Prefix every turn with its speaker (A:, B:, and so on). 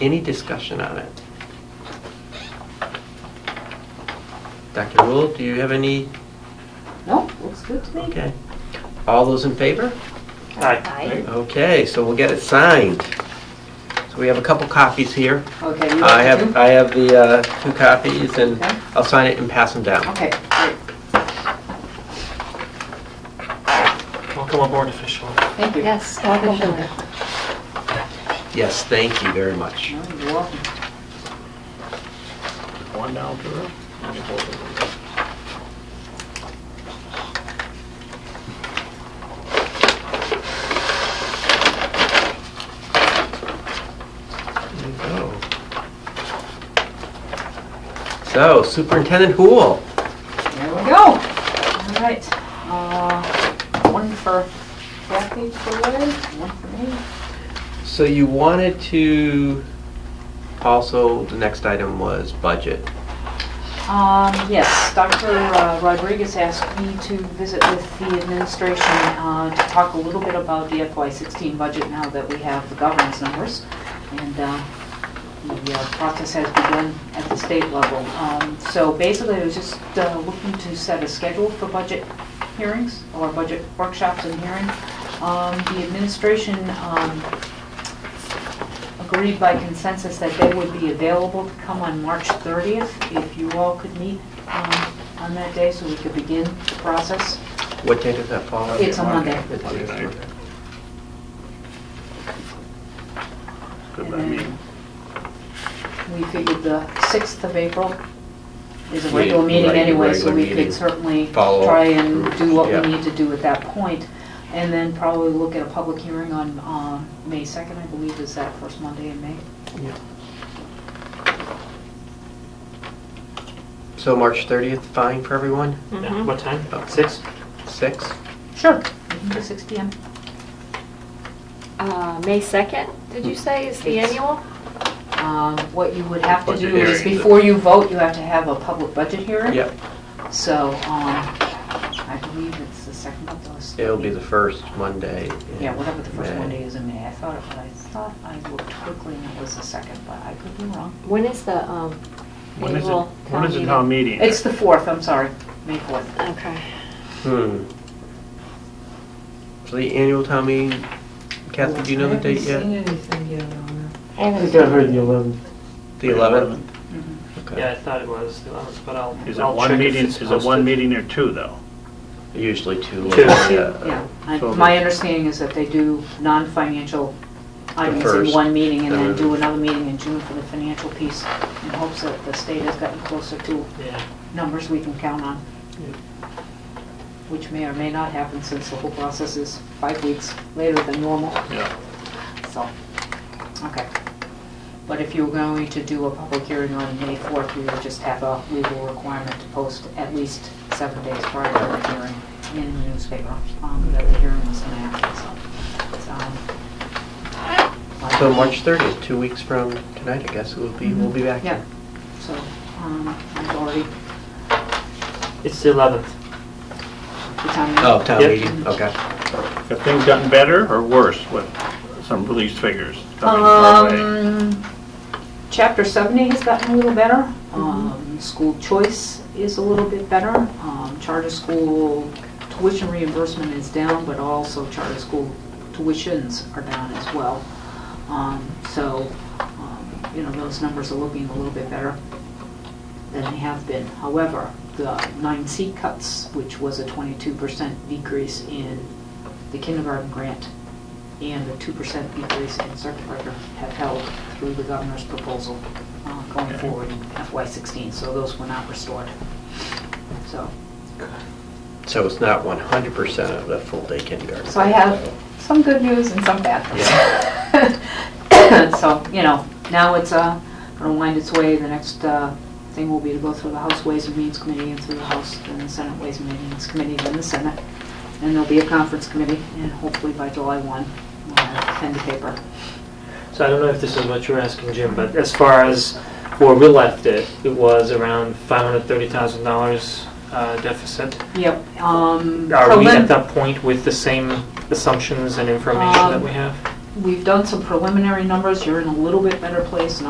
A: Any discussion on it? Dr. Rule, do you have any?
B: No, looks good to me.
A: Okay. All those in favor?
B: Aye.
A: Okay, so we'll get it signed. So we have a couple copies here.
B: Okay. you
A: I
B: want
A: have,
B: to?
A: I have the uh, two copies and
B: Okay.
A: I'll sign it and pass them down.
B: Okay, great,
C: Welcome aboard official.
B: thank you.
D: Yes, welcome back.
A: Yes, thank you very much.
B: No, You're welcome.
C: One down, Drew.
A: There you go. So Superintendent Hool,
B: There we go. All right. Uh, One for Kathy for Larry, one for me.
A: so you wanted to, also, the next item was budget.
B: Um, Yes, Dr. uh, Rodriguez asked me to visit with the administration uh, to talk a little bit about the FY16 budget now that we have the governance numbers. And uh, the uh, process has begun at the state level. Um, So basically, I was just uh, looking to set a schedule for budget hearings or budget workshops and hearing. Um, The administration um, agreed by consensus that they would be available to come on March 30th, if you all could meet um, on that day, so we could begin the process.
A: What day does that fall?
B: It's a Monday.
A: It's a Monday.
C: Good
B: And
C: by me.
B: then We figured the 6th of April is a regular
A: Yeah,
B: meeting
A: right,
B: anyway, so
A: regular
B: we
A: meeting.
B: could certainly
A: Follow up
B: try and
A: groups,
B: do what
A: yeah.
B: we need to do at that point, And then probably look at a public hearing on um, May 2nd, I believe, is that first Monday in May?
A: So March 30th, fine for everyone?
D: Mm-hmm.
C: Yeah, What time?
B: Oh,
A: About
C: Six?
A: Six?
B: Sure. We can do 6 PM.
D: Uh, May 2nd, did you say, is the
B: Yes.
D: annual?
B: Um, What you would have to
C: Budget
B: do is,
C: hearing, the-
B: before you vote, you have to have a public budget hearing.
A: Yep,
B: So, um, I believe it's the second of those.
A: it'll be the first Monday. in
B: Yeah, whatever the first
A: May.
B: Monday is in May. I thought, it- I thought I looked quickly and it was the second, but I could be wrong.
D: When is the um,
C: When is it,
D: annual
C: when
D: town
C: is the
D: meeting?
C: town meeting?
B: It's the fourth, I'm sorry, May fourth.
D: Okay.
A: Hmm. So the annual town meeting, Kathy, do you know the date yet?
D: I haven't
E: heard the 11th.
A: The 11th?
B: Mm-hmm.
A: Okay.
C: Yeah, I thought it was the eleventh, but I'll.
E: Is it
C: I'll
E: one
C: check if
E: meeting,
C: it's
E: is it
C: posted.
E: one meeting or two, though?
A: Usually two. uh,
C: Two.
A: Yeah.
B: Yeah, I-
E: So-
B: my understanding is that they do non-financial items in
A: first,
B: one meeting and then
A: and
B: do
A: then-
B: another meeting in June for the financial piece in hopes that the state has gotten closer to
C: Yeah.
B: numbers we can count on, which may or may not happen since the whole process is five weeks later than normal.
C: Yeah.
B: So, okay. But if you were going to do a public hearing on May 4th, we would just have a legal requirement to post at least seven days prior to the hearing in the newspaper um, that the hearing was enacted, so. um, it's, um,
A: So March 30th, two weeks from tonight, I guess, we'll be, we'll be back.
B: Yeah, so um, I've already,
C: It's the eleventh.
B: the time.
A: Oh, town
C: Yep.
A: meeting, okay.
E: Have things gotten better or worse with some release figures coming our way?
B: Um, chapter seventy has gotten a little better. Um, school choice is a little bit better. Um, charter school tuition reimbursement is down, but also charter school tuitions are down as well. Um, so, um, you know, those numbers are looking a little bit better than they have been. However, the nine C cuts, which was a twenty-two percent decrease in the kindergarten grant and a two percent decrease in circuit breaker have held through the governor's proposal uh, going forward in FY sixteen, so those were not restored. So,
A: So it's not 100% of the full day kindergarten.
B: so I have some good news and some bad news. So, you know, now it's uh, gonna wind its way, the next uh, thing will be to go through the House Ways and Means Committee and through the House, then the Senate Ways and Means Committee, then the Senate, and there'll be a conference committee, and hopefully by July one, we'll have pen to paper.
C: So I don't know if this is what you're asking, Jim, but as far as where we left it, it was around five hundred thirty thousand dollars uh, deficit.
B: Yep. um,
C: Are we
B: prelim-
C: at that point with the same assumptions and information that we have?
B: we've done some preliminary numbers, you're in a little bit better place